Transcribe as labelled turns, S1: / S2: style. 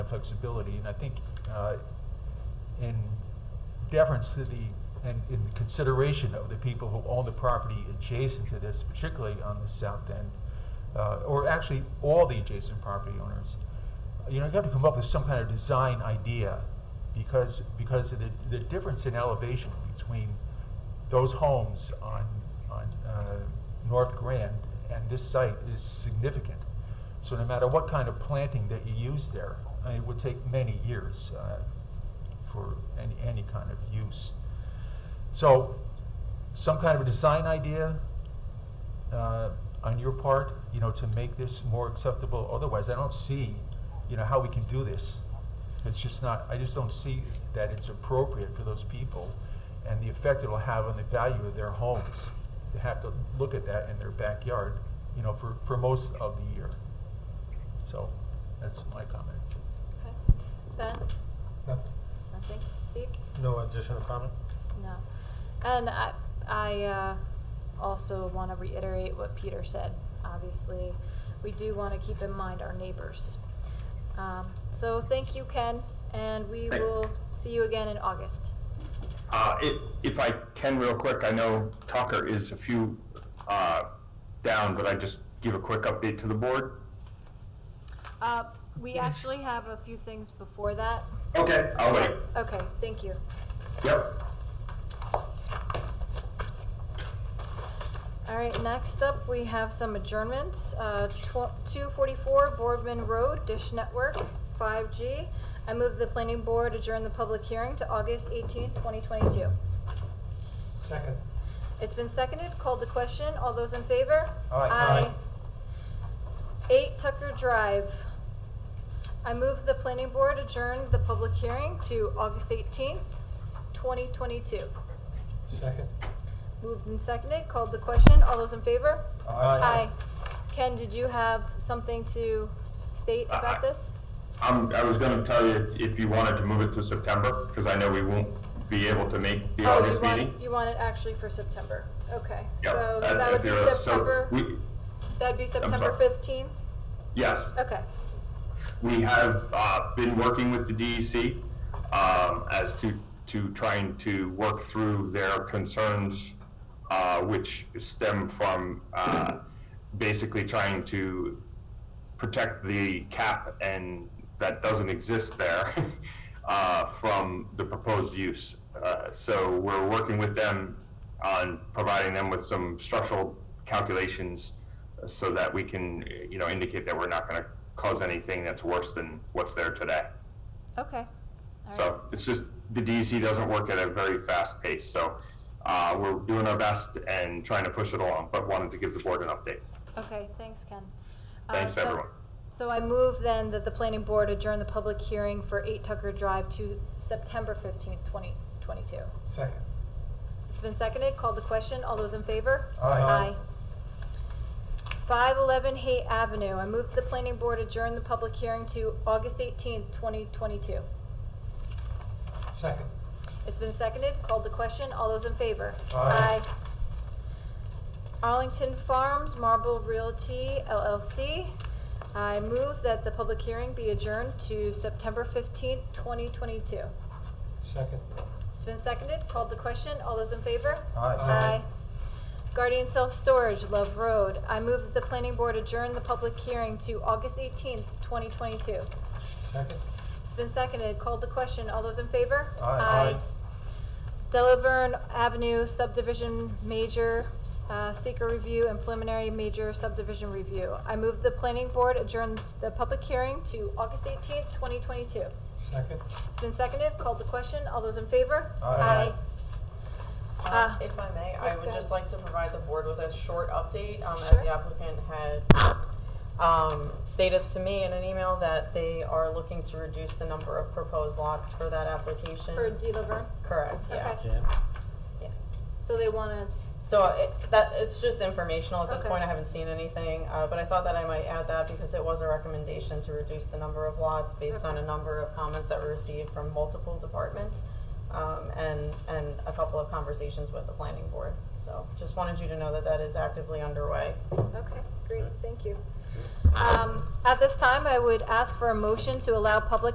S1: flexibility, and I think uh, in deference to the, and in consideration of the people who own the property adjacent to this, particularly on the south end, uh, or actually all the adjacent property owners, you know, you have to come up with some kind of design idea because, because of the, the difference in elevation between those homes on, on uh, North Grand and this site is significant. So no matter what kind of planting that you use there, I mean, it would take many years uh, for any, any kind of use. So some kind of a design idea uh, on your part, you know, to make this more acceptable. Otherwise, I don't see, you know, how we can do this. It's just not, I just don't see that it's appropriate for those people and the effect it'll have on the value of their homes. They have to look at that in their backyard, you know, for, for most of the year. So that's my comment.
S2: Okay. Ben?
S3: Nothing.
S2: Nothing? Steve?
S3: No additional comment?
S2: No. And I, I uh, also want to reiterate what Peter said. Obviously, we do want to keep in mind our neighbors. Um, so thank you, Ken, and we
S4: Thank-
S2: will see you again in August.
S4: Uh, if, if I can real quick, I know Tucker is a few, uh, down, but I just give a quick update to the board.
S2: Uh, we actually have a few things before that.
S4: Okay, I'll wait.
S2: Okay, thank you.
S4: Yep.
S2: All right, next up, we have some adjournments. Uh, tw- 244 Boardman Road, Dish Network, 5G. I move the planning board adjourn the public hearing to August 18th, 2022.
S3: Second.
S2: It's been seconded, called the question. All those in favor?
S1: Aye. Aye.
S2: 8 Tucker Drive. I move the planning board adjourn the public hearing to August 18th, 2022.
S3: Second.
S2: Moved and seconded, called the question. All those in favor?
S1: Aye.
S2: Hi, Ken, did you have something to state
S4: Aye.
S2: about this?
S4: Um, I was gonna tell you if you wanted to move it to September, because I know we won't be able to make the
S2: Oh, you
S4: August
S2: want-
S4: meeting. uh,
S2: You want it actually for September, okay.
S4: Yep,
S2: So
S4: that-
S2: that would be
S4: there- so
S2: September,
S4: we-
S2: that'd be September
S4: sorry.
S2: 15th?
S4: Yes,
S2: Okay,
S4: we have, uh, been working with the DEC, um, as to, to trying to work through their concerns, uh, which stem from, uh, basically trying to protect the cap and that doesn't exist there uh, from the proposed use. Uh, so we're working with them on providing them with some structural calculations so that we can, you know, indicate that we're not going to cause anything that's worse than what's there today.
S2: okay. All right.
S4: So it's just the DEC doesn't work at a very fast pace. So uh, we're doing our best and trying to push it along, but wanted to give the board an update.
S2: Okay, thanks, Ken. Uh,
S4: Thanks,
S2: so-
S4: everyone.
S2: So I move then that the planning board adjourn the public hearing for 8 Tucker Drive to September 15th, 2022.
S3: Second.
S2: It's been seconded, called the question, all those in favor?
S1: Aye.
S2: 511 Haight Avenue, I move the planning board adjourn the public hearing to August 18th, 2022.
S3: Second.
S2: It's been seconded, called the question, all those in favor?
S3: Aye.
S2: Arlington Farms Marble Realty LLC, I move that the public hearing be adjourned to September 15th, 2022.
S3: Second.
S2: It's been seconded, called the question, all those in favor?
S1: Aye.
S2: Aye. Guardian Self Storage, Love Road. I move that the planning board adjourn the public hearing to August 18th, 2022.
S3: Second.
S2: It's been seconded, called the question. All those in favor?
S1: Aye. Aye.
S2: Delaverne Avenue subdivision major uh, seeker review and preliminary major subdivision review. I move the planning board adjourn the public hearing to August 18th, 2022.
S3: Second.
S2: It's been seconded, called the question. All those in favor?
S1: Aye.
S5: Uh,
S2: Ah.
S5: If I may,
S2: Yeah,
S5: I
S2: go
S5: would
S2: ahead.
S5: just like to provide the board with a short update. um, As
S2: Sure.
S5: the applicant had um, stated to me in an email that they are looking to reduce the number of proposed lots for that application.
S2: For Delaverne?
S5: Correct, yeah.
S2: Okay.
S5: Yeah.
S2: So they want to
S5: So it, that, it's just informational at this
S2: Okay.
S5: point. I haven't seen anything, uh, but I thought that I might add that because it was a recommendation to reduce the number of lots based on
S2: Okay.
S5: a number of comments that were received from multiple departments, um, and, and a couple of conversations with the planning board. So just wanted you to know that that is actively underway.
S2: Okay, great, thank you. Um, At this time, I would ask for a motion to allow public